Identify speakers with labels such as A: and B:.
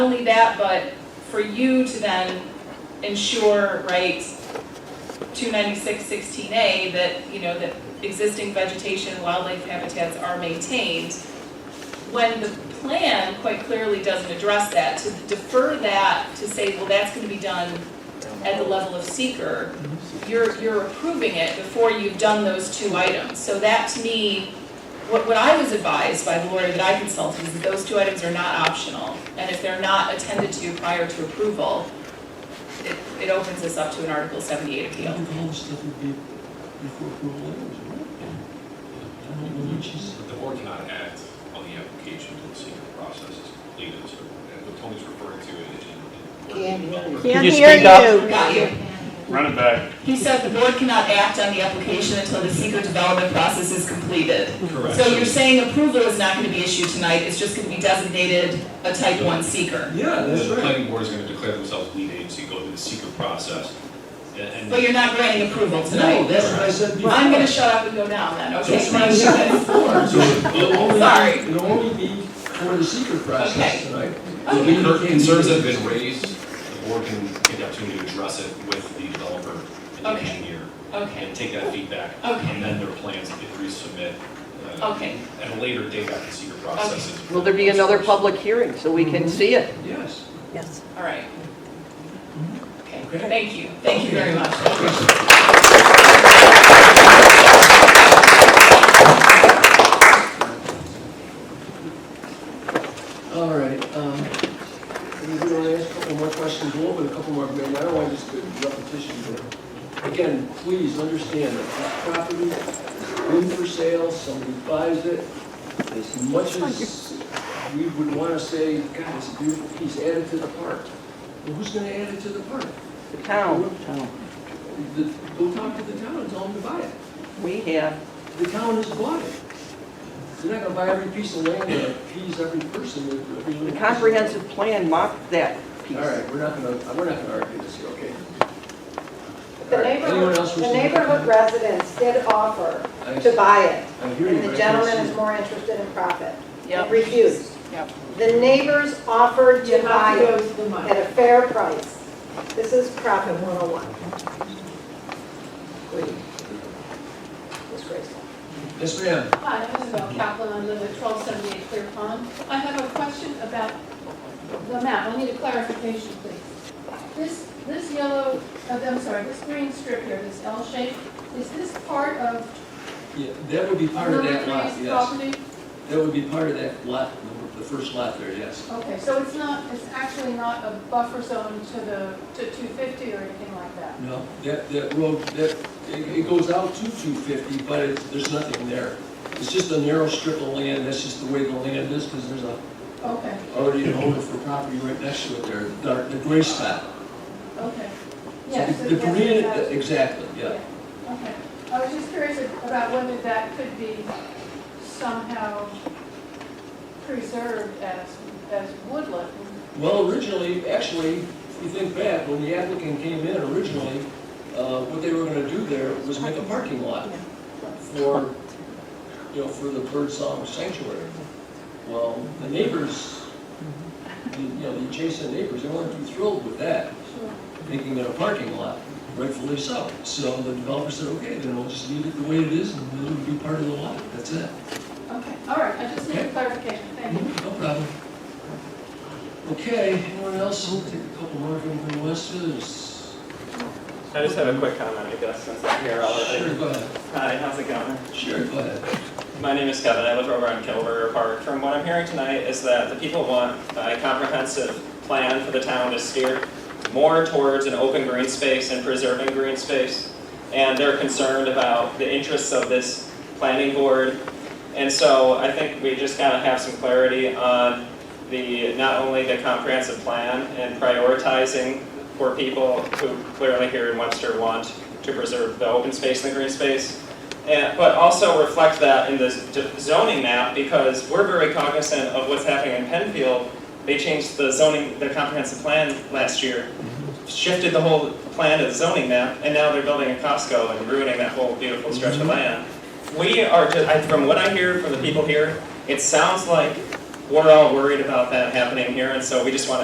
A: that, but for you to then ensure, right, two ninety-six sixteen A, that, you know, that existing vegetation and wildlife habitats are maintained, when the plan quite clearly doesn't address that, to defer that, to say, well, that's gonna be done at the level of seeker, you're, you're approving it before you've done those two items. So that to me, what, what I was advised by the lawyer that I consulted is that those two items are not optional. And if they're not attended to prior to approval, it, it opens us up to an Article seventy-eight
B: I
A: appeal.
B: think all this stuff would be before approval anyways, right? I don't know what she's,
C: But the board cannot act on the application until the secret process is completed, so uh, what Tony's referring to in- in.
D: Can't hear you.
E: Can
F: Can
E: you
F: you hear
E: speak up?
F: you?
A: Got you.
E: Run it back.
A: He said the board cannot act on the application until the secret development process is completed.
C: Correct.
A: So you're saying approval is not gonna be issued tonight, it's just gonna be designated a type one seeker.
B: yeah, that's
C: The
B: right.
C: planning board is gonna declare themselves lead agency, go through the secret process, and.
A: But
C: and-
A: you're not granting approval
B: No,
A: tonight.
B: that's what I said
A: Well,
B: before.
A: I'm gonna shut up and go down then, okay?
B: That's what I said before. So it'll only,
A: Sorry.
B: be- it'll only be for the secret
A: Okay.
B: process tonight.
C: So the cur- concerns that have been raised, the board can take the opportunity to address it with the developer and the
A: Okay.
C: engineer,
A: Okay,
C: and take that feedback.
A: Okay.
C: And then their plans, if they resubmit, uh,
A: okay.
C: at a later date after the secret process is.
D: Will there be another public hearing so we can see it?
B: Yes.
F: Yes.
A: All right. Okay,
B: Okay.
A: thank you, thank you very much.
B: All right, um, we can only ask a couple more questions, a little bit, a couple more, maybe, I don't want to just do repetition here. Again, please understand that this property, room for sale, somebody buys it, as much as we would want to say, God, it's a beautiful piece, add it to the park. Well, who's going to add it to the park?
D: The town,
B: The- Go talk to the town and tell them to buy it.
D: we have,
B: The town has bought it. They're not going to buy every piece of land that appease every person. every little
D: the
B: piece of-
D: comprehensive plan mocked that piece.
B: All right, we're not gonna, we're not gonna argue this here, okay?
G: The
B: All right, anyone
G: neighborhood,
B: else wish
G: the
B: to make a
G: neighborhood
B: comment?
G: residents did offer
B: I-
G: to buy it,
B: I hear you,
G: and
B: but I
G: the
B: can't
G: gentleman
B: see
G: is
B: it.
G: more interested in profit.
A: Yep.
G: Refused.
A: Yep.
G: The neighbors offered to buy it at a fair price. This is profit 101. Greed. Disgraceful.
B: Yes, ma'am.
H: Hi, I'm Isabel Kaplan, I live at 1278 Clear Pond. I have a question about the map, I need a clarification, please. This, this yellow, uh, I'm sorry, this green strip here, this L shape, is this part of
B: Yeah, that would be part of
H: number
B: that lot,
H: three's
B: yes.
H: property?
B: That would be part of that lot, the- the first lot there, yes.
H: Okay, so it's not, it's actually not a buffer zone to the, to 250 or anything like that?
B: No, that, that road, that, it, it goes out to two fifty, but it, there's nothing there. It's just a narrow strip of land, that's just the way the land is, because there's a,
H: Okay,
B: already an owner for property right next to it there, the dark- the gray spot.
H: okay.
B: So
H: Yes.
B: the- The
H: yes,
B: green,
H: yes.
B: exactly, yeah.
H: Okay, I was just curious about whether that could be somehow preserved as, as woodland.
B: Well, originally, actually, if you think back, when the applicant came in originally, uh, what they were gonna do there was make a parking lot for, you know, for the Birdsong Sanctuary. Well, the neighbors, the- you know, the adjacent neighbors, they weren't too thrilled with that,
H: Sure.
B: making it a parking lot, rightfully so. So the developer said, okay, then we'll just leave it the way it is, and it'll be part of the lot, that's it.
H: Okay, all right, I just need a clarification, thank you.
B: No problem. Okay, anyone else? We'll take a couple more from the West's.
E: I just have a quick comment, I guess, since I'm here
B: Sure,
E: already.
B: go ahead.
E: Hi, how's it going?
B: Sure, go ahead.
E: My name is Kevin, I live over on Kilburger Park. From what I'm hearing tonight is that the people want a comprehensive plan for the town to steer more towards an open green space and preserving green space. And they're concerned about the interests of this planning board. And so I think we just gotta have some clarity on the, not only the comprehensive plan and prioritizing for people who clearly here in Webster want to preserve the open space and the green space, and, but also reflect that in the z- zoning map, because we're very cognizant of what's happening in Penfield. They changed the zoning, the comprehensive plan last year, shifted the whole plan to the zoning map, and now they're building a Costco and ruining that whole beautiful stretch of land. We are just, I, from what I hear from the people here, it sounds like we're all worried about that happening here, and so we just wanna